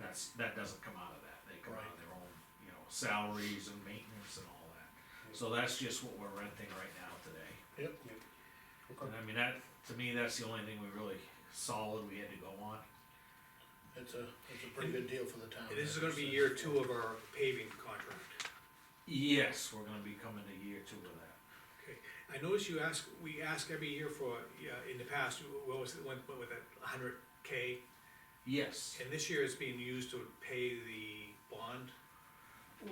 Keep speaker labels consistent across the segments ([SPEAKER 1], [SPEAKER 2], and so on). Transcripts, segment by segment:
[SPEAKER 1] That's, that doesn't come out of that, they come out of
[SPEAKER 2] Right.
[SPEAKER 1] their own, you know, salaries and maintenance and all that. So that's just what we're renting right now today.
[SPEAKER 2] Yep.
[SPEAKER 1] And I mean, that, to me, that's the only thing we really solid we had to go on.
[SPEAKER 2] It's a, it's a pretty good deal for the town.
[SPEAKER 3] And this is gonna be year two of our paving contract.
[SPEAKER 1] Yes, we're gonna be coming to year two of that.
[SPEAKER 3] Okay, I notice you ask, we ask every year for, uh, in the past, what was it, went went with a hundred K?
[SPEAKER 1] Yes.
[SPEAKER 3] And this year it's being used to pay the bond,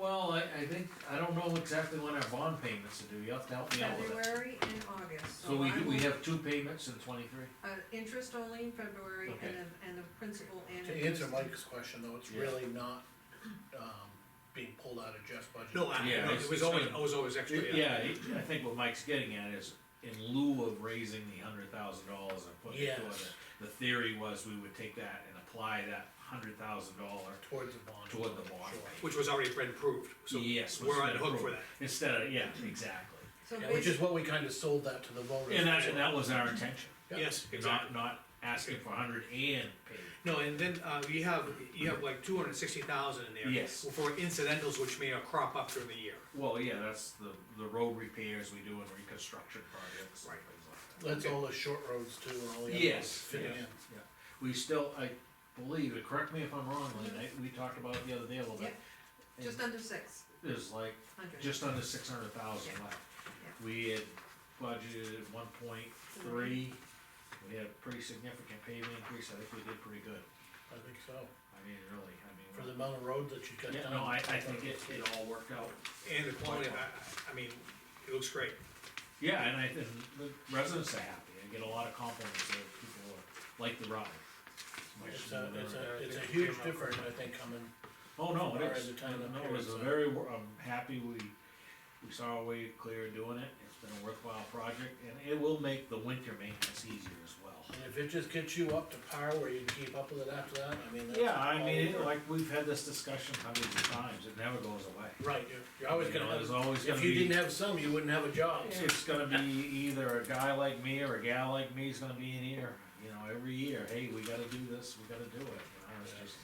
[SPEAKER 1] Well, I, I think, I don't know exactly when our bond payments are due, you have to help me out with it.
[SPEAKER 4] February and August.
[SPEAKER 1] So we,
[SPEAKER 4] Oh, I
[SPEAKER 1] we
[SPEAKER 4] will-
[SPEAKER 1] have two payments in twenty-three?
[SPEAKER 4] Uh, interest only in February
[SPEAKER 1] Okay.
[SPEAKER 4] and the, and the principal and.
[SPEAKER 2] To answer
[SPEAKER 4] interest.
[SPEAKER 2] Mike's question though, it's
[SPEAKER 1] Yeah.
[SPEAKER 2] really not, um, being pulled out of Jeff's budget.
[SPEAKER 3] no, I,
[SPEAKER 1] Yeah,
[SPEAKER 3] no,
[SPEAKER 1] it's-
[SPEAKER 3] it was
[SPEAKER 1] it's
[SPEAKER 3] always,
[SPEAKER 1] gonna-
[SPEAKER 3] it was always extra,
[SPEAKER 1] Yeah, I think what Mike's getting at is, in lieu of raising the hundred thousand dollars and putting it toward
[SPEAKER 2] Yes.
[SPEAKER 1] it, the theory was we would take that and apply that hundred thousand dollar
[SPEAKER 2] Towards the bond.
[SPEAKER 1] toward the bond.
[SPEAKER 2] Sure.
[SPEAKER 3] Which was already been approved, so
[SPEAKER 1] Yes.
[SPEAKER 3] we're on
[SPEAKER 1] instead
[SPEAKER 3] the
[SPEAKER 1] of
[SPEAKER 3] hook for
[SPEAKER 1] pro-
[SPEAKER 3] that.
[SPEAKER 1] Instead of, yeah, exactly.
[SPEAKER 4] So
[SPEAKER 2] Yeah, Which is
[SPEAKER 4] basically,
[SPEAKER 2] what we kinda sold that to the voters.
[SPEAKER 1] And that, and that was our intention,
[SPEAKER 2] Yeah.
[SPEAKER 3] Yes, exactly.
[SPEAKER 1] not, not asking for a hundred and pay.
[SPEAKER 3] No, and then, uh, you have, you have like two hundred and sixty thousand in there.
[SPEAKER 1] Yes.
[SPEAKER 3] For incidentals which may crop up during the year.
[SPEAKER 1] Well, yeah, that's the, the road repairs we do and reconstruction projects and
[SPEAKER 3] Right.
[SPEAKER 1] things like that.
[SPEAKER 2] That's all the short roads too and all the other ones
[SPEAKER 1] Yes,
[SPEAKER 2] fitting
[SPEAKER 1] yeah.
[SPEAKER 2] in.
[SPEAKER 1] Yeah, we still, I believe, and correct me if I'm wrong, Lynn, I, we talked about it the other day a little bit.
[SPEAKER 4] just under six
[SPEAKER 1] There's like,
[SPEAKER 4] hundred.
[SPEAKER 1] just under six hundred thousand
[SPEAKER 4] Yeah.
[SPEAKER 1] left. We had budgeted one point three, we had a pretty significant paving increase, I think we did pretty good.
[SPEAKER 2] I think so,
[SPEAKER 1] I mean, really, I
[SPEAKER 2] for the
[SPEAKER 1] mean,
[SPEAKER 2] amount of road that you got
[SPEAKER 1] yeah,
[SPEAKER 2] done.
[SPEAKER 1] no, I, I think it, it all worked out.
[SPEAKER 3] And the quality, of- I, I mean, it looks great.
[SPEAKER 1] Yeah, and I, and the residents are happy, I get a lot of compliments that people are- like the ride.
[SPEAKER 2] It's a, it's
[SPEAKER 3] I
[SPEAKER 2] a, it's
[SPEAKER 3] think
[SPEAKER 2] a
[SPEAKER 3] it
[SPEAKER 2] huge
[SPEAKER 3] came out
[SPEAKER 2] difference,
[SPEAKER 3] pretty
[SPEAKER 2] I think, coming,
[SPEAKER 1] Oh, no,
[SPEAKER 2] Or
[SPEAKER 1] it is,
[SPEAKER 2] at the time of
[SPEAKER 1] no, it was a
[SPEAKER 2] period.
[SPEAKER 1] very, wor- I'm happy we, we saw our way clear doing it, it's been a worthwhile project, and it will make the winter maintenance easier as well.
[SPEAKER 2] and if it just gets you up to par where you can keep up with it after that, I mean, that's.
[SPEAKER 1] Yeah, I
[SPEAKER 2] all
[SPEAKER 1] mean, it-
[SPEAKER 2] over.
[SPEAKER 1] like, we've had this discussion hundreds of times, it never goes away.
[SPEAKER 2] Right, you're, you're always
[SPEAKER 1] You know,
[SPEAKER 2] gonna have,
[SPEAKER 1] There's always gonna
[SPEAKER 2] if you
[SPEAKER 1] be,
[SPEAKER 2] didn't have some, you wouldn't have a job, so.
[SPEAKER 1] it's gonna be either a guy like me or a gal like me is gonna be in here, you know, every year, hey, we gotta do this, we gotta do it, you know, it's just,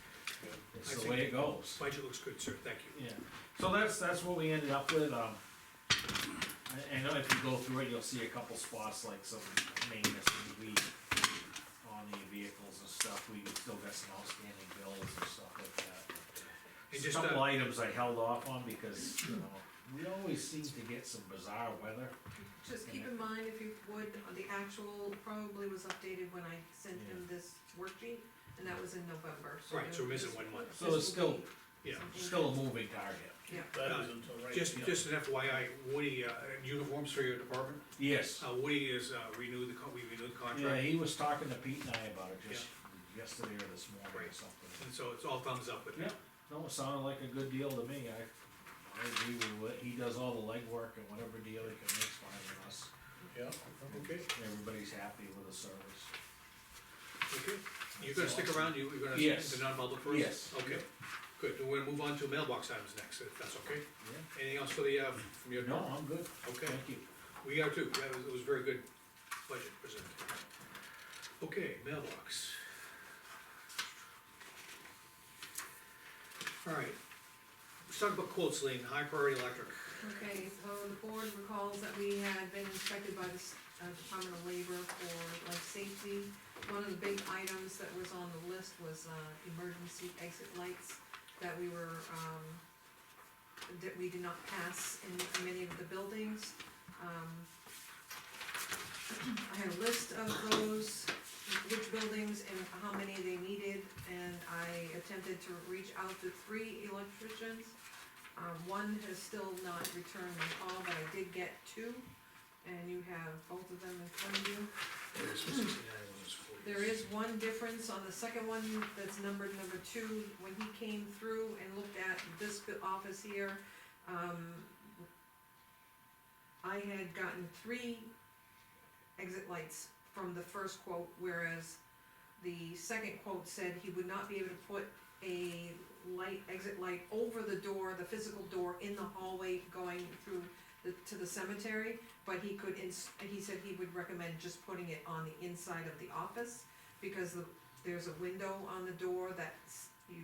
[SPEAKER 3] I
[SPEAKER 1] it's the
[SPEAKER 3] think-
[SPEAKER 1] way it goes.
[SPEAKER 3] Budget looks good, sir, thank you.
[SPEAKER 1] Yeah, so that's, that's what we ended up with, um, I, I know if you go through it, you'll see a couple spots like some maintenance and weed on the vehicles and stuff, we still got some outstanding bills and stuff like
[SPEAKER 3] And
[SPEAKER 1] that.
[SPEAKER 3] just,
[SPEAKER 1] Couple
[SPEAKER 3] uh,
[SPEAKER 1] items I held off on because, you know, we always seem to get some bizarre weather.
[SPEAKER 4] Just keep in mind, if you would, uh, the actual probably was updated when I sent him this worksheet, and that was in November.
[SPEAKER 3] Right, so we're missing
[SPEAKER 4] this-
[SPEAKER 3] one month.
[SPEAKER 1] So it's
[SPEAKER 4] this will
[SPEAKER 1] still,
[SPEAKER 4] be
[SPEAKER 3] yeah.
[SPEAKER 4] something-
[SPEAKER 1] still a moving target.
[SPEAKER 4] Yeah,
[SPEAKER 2] That is until right.
[SPEAKER 3] Just,
[SPEAKER 2] yeah.
[SPEAKER 3] just an FYI, Woody, uh, uniforms for your department,
[SPEAKER 1] Yes.
[SPEAKER 3] uh, Woody is, uh, renewed the, con- we renewed the
[SPEAKER 1] Yeah,
[SPEAKER 3] contract,
[SPEAKER 1] he was talking to Pete and I about it just yesterday or this morning or
[SPEAKER 3] Right.
[SPEAKER 1] something.
[SPEAKER 3] and so it's all thumbs up with
[SPEAKER 1] Yeah,
[SPEAKER 3] that.
[SPEAKER 1] no, it sounded like a good deal to me, I, I agree with what, he does all the legwork and whatever deal he can make fine with us.
[SPEAKER 2] Yeah,
[SPEAKER 3] Okay,
[SPEAKER 1] Everybody's happy with the service.
[SPEAKER 3] okay, you're gonna stick around, you, you're gonna
[SPEAKER 1] Yes.
[SPEAKER 3] stick to non-public first?
[SPEAKER 1] Yes.
[SPEAKER 3] Okay, good, and we're gonna move on to mailbox items next, if that's okay,
[SPEAKER 1] Yeah.
[SPEAKER 3] anything else for the, uh, from your?
[SPEAKER 1] No, I'm good,
[SPEAKER 3] Okay,
[SPEAKER 1] thank you.
[SPEAKER 3] we are too, that was, it was very good budget presented. Okay, mailbox. All right, let's talk about quotes, Lean, high priority electric.
[SPEAKER 4] okay, so the board recalls that we had been inspected by the s- uh, Department of Labor for life safety. One of the big items that was on the list was, uh, emergency exit lights that we were, um, that we did not pass in many of the buildings. Um, I had a list of those, which buildings and how many they needed, and I attempted to reach out to three electricians. Um, one has still not returned my call, but I did get two, and you have both of them in front of you. There is one difference on the second one that's numbered number two, when he came through and looked at this bu- office here, um, I had gotten three exit lights from the first quote, whereas the second quote said he would not be able to put a light, exit light over the door, the physical door in the hallway going through the, to the cemetery, but he could ins- he said he would recommend just putting it on the inside of the office, because the, there's a window on the door that's